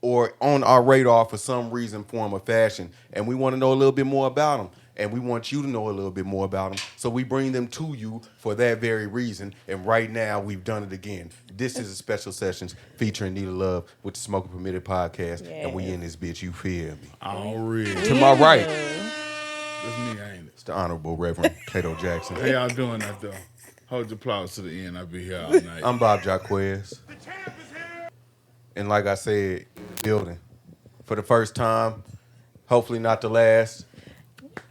or on our radar for some reason, form, or fashion. And we want to know a little bit more about them. And we want you to know a little bit more about them. So we bring them to you for that very reason. And right now, we've done it again. This is a special sessions featuring Nita Love with the Smoking Permitted podcast. And we Yes. in this bitch, you feel me? All right. To my right, That's me, ain't it? it's the Honorable Reverend Cato Jackson. How y'all doing out there? Hold your applause to the end. I'll be here all night. I'm Bob Jaquez. And like I said, building. For the first time, hopefully not the last,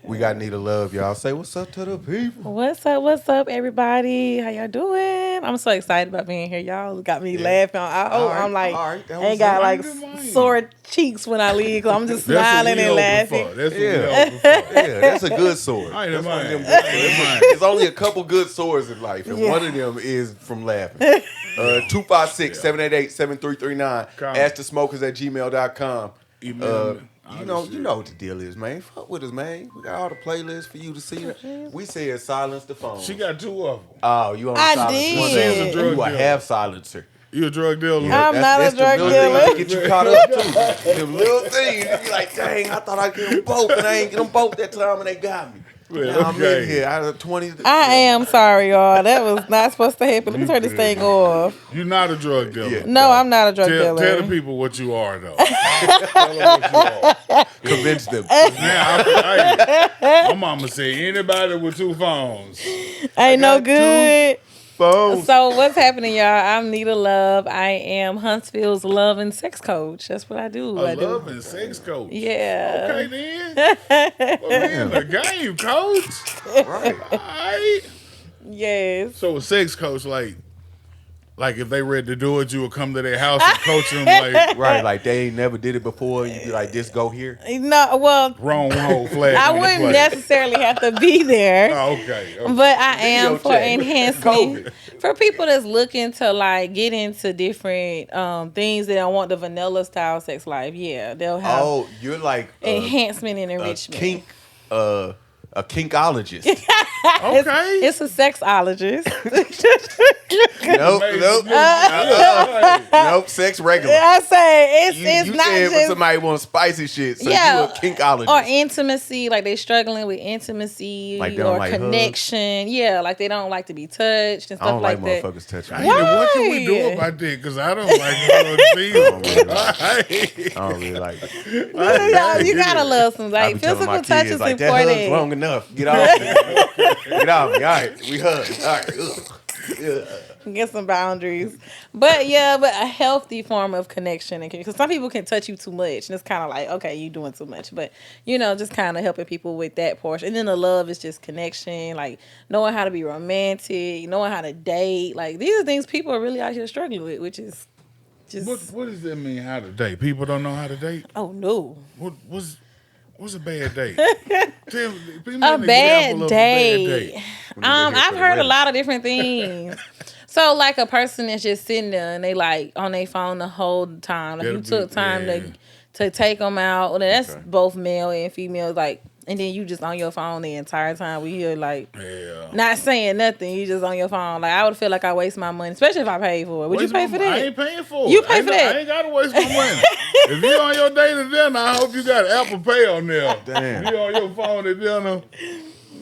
we got Nita Love, y'all. Say what's up to the people. What's up? What's up, everybody? How y'all doing? I'm so excited about being here. Y'all got me laughing. I, oh, All right, I'm like, all right, that I was ain't got all like right, good morning. sore cheeks when I leave. i I'm just That's what smiling we and open laughing. for. That's Yeah. what we open for. Yeah, that's a good sword. I ain't That's one of mind. them- I ain't mind. There's only a couple good swords in life, and Yeah. one of them is from laughing. Uh, 256 788 7339. Come. Ask the smokers at gmail.com. Email Uh, me. All you know, this you shit. know what the deal is, man. Fuck with us, man. We got all the playlists for you to see. We said silence the phone. She got two of them. Oh, you on I silence? did. One She's a of them. drug you a dealer. half silencer. You a drug dealer? I'm That's- not a that's the drug little thing that dealer. Get you caught up too. Them little things. You be like, dang, I thought I get them both, and I ain't get them both that time, and they got me. Well, now I'm okay. in here. Out of twenty, I am sorry, y'all. That was not supposed to happen. Let me turn this thing off. You're not a drug dealer. Yeah. No, I'm not a drug Tell, dealer. tell the people what you are, though. tell them what you are. convinced them. Now, I, I, my mama said anybody with two phones. ain't I no got good. Boom. So what's happening, y'all? I'm Nita Love. I am Huntsville's love and sex coach. That's what I do. I A do. love and sex coach. Yeah. Okay, then. well, we in the game, coach. Right. All right. Yes. So a sex coach, like, like if they ready to do it, you would come to their house and coach them like Right. Like they ain't never did it before. You be like, just go here. No. Well, wrong whole flag. I on the wouldn't plate. necessarily have to be there. Oh, okay. okay. But I am Video for chat. enhancement for people that's looking to like get into different um things that don't want the vanilla style sex life. Yeah, they'll have Oh, you're like a, enhancement and a enrichment. kink, uh, a kinkologist. okay. It's a sexologist. nope, Amazing. nope, Yeah, right. nope. Sex regular. I say it's You, it's you not said when just somebody wants spicy shit, so Yeah, you a kinkologist. or intimacy, like they're struggling with intimacy Like they don't or like hugs? connection. Yeah, like they don't like to be touched and stuff I don't like, that. motherfuckers touching. I me. mean, what can we do Why? about that? Because I don't like drugs either. All right. I don't really like it. No, you gotta love some I like be telling my physical touch kids, is like, that hug's important. long enough. Get off me. Get off me. All right, we hug. All right. Ugh. get some boundaries. But yeah, but a healthy form of connection and because some people can touch you too much and it's kind of like okay, you doing too much. But you know, just kind of helping people with that portion. And then the love is just connection, like knowing how to be romantic, knowing how to date. Like these are things people are really out here struggling with, which is just What, what does that mean? How to date? People don't know how to date. oh no. What was what's a bad date? Tell me- give me a an example bad of a day. When you Um, get here I've for the heard a wedding. lot of different things. so, like a person that's just sitting there and they like on their phone the whole time. Like you That'd be- took time yeah. to to take them out. Well, that's Okay. both male and female. Like, and then you just on your phone the entire time. We hear like. Yeah. Not saying nothing, you just on your phone. Like I would feel like I waste my money, especially if I paid for it. Would Waste you pay my for mo- I that? ain't paying for it. You pay I ain't for no- that. I ain't gotta waste my money. if you on your date to dinner, I hope you got Apple Pay on there. Damn. You on your phone at dinner,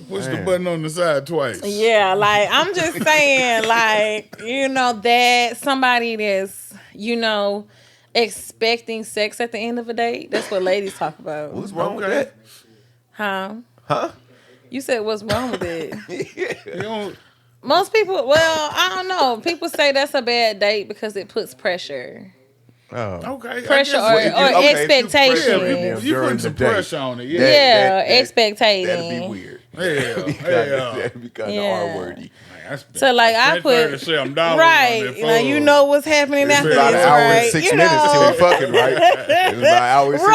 push the Damn. button on the side twice. Yeah, like I'm just saying, like, you know, that somebody that's, you know, expecting sex at the end of a date. That's what ladies talk about. What's wrong Okay. with Huh? Huh? You said what's wrong with it? You don't, Most people well, I don't know. People say that's a bad date because it puts pressure. that? Oh. okay. I Pressure guess or, what you- or okay, if you expectation. pressure yeah, Yeah, you, you during putting the some day. pressure on it. Yeah. Yeah, that- that- expectating. That'd be weird. Yeah. That'd Yeah. that'd be kind of Yeah. R-wordy. So, like, I put- Right. You know, you know what's happening It's after this, about About an hour right? and six you minutes till know. we fucking, right? It's about an hour and six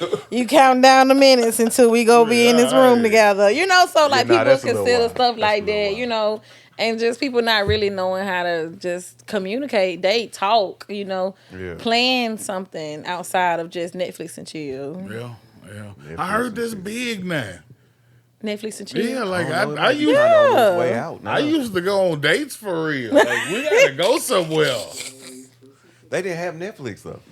minutes. Right, right. You count down the minutes until we go be in this room Right. together. You know, so like nah, that's a people little consider wild. stuff That's like a little that, wild. you know, and just people not really knowing how to just communicate, date, talk, you know, Yeah. plan something outside of just Netflix and chill. Yeah. Yeah. I heard this big now. Netflix and chill. Yeah, like I, don't know, I, I it might be used kinda on its way Yeah. out. I now. used to go on dates for real. Like we gotta go somewhere. They didn't have Netflix though.